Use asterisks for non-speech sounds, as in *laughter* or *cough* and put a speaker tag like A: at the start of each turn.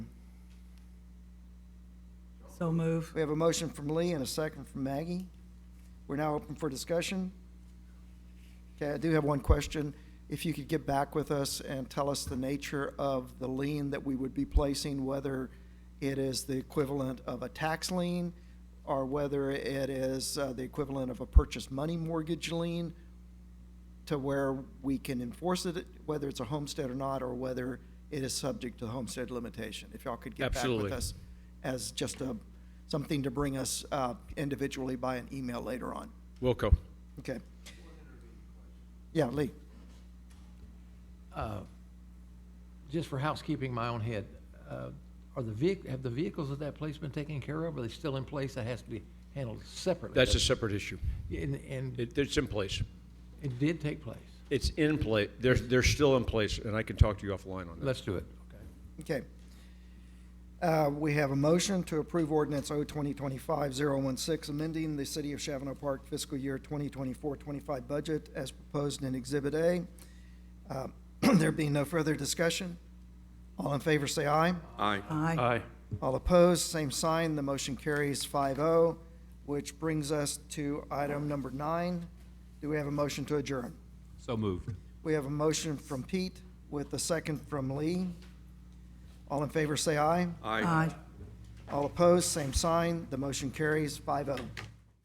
A: So move.
B: We have a motion from Lee and a second from Maggie. We're now open for discussion. Okay, I do have one question. If you could get back with us and tell us the nature of the lien that we would be placing, whether it is the equivalent of a tax lien, or whether it is uh, the equivalent of a purchase money mortgage lien, to where we can enforce it, whether it's a homestead or not, or whether it is subject to the homestead limitation. If y'all could get back with
C: Absolutely.
B: us as just a, something to bring us uh, individually by an email later on.
C: Wilco.
B: Okay. Yeah, Lee.
D: Uh, just for housekeeping, in my own head, uh, are the vehic, have the vehicles at that place been taken care of? Are they still in place? That has to be handled separately.
C: That's a
D: doesn't
C: separate issue.
D: it? And, and
C: It, it's in place.
D: it did take place.
C: It's in place. They're, they're still in place, and I can talk to you offline on that.
D: Let's do it.
B: Okay. Uh, We have a motion to approve ordinance 02025-016, amending the City of Chavano Park fiscal year 2024-25 budget as proposed in Exhibit A. Uh, *clears throat* There being no further discussion, all in favor say aye.
E: Aye.
A: Aye.
C: Aye.
B: All opposed, same sign, the motion carries 5-0, which brings us to item number nine. Do we have a motion to adjourn?
E: So moved.
B: We have a motion from Pete with a second from Lee. All in favor say aye.
E: Aye.
A: Aye.
B: All opposed, same sign. The motion carries oh. 5-0.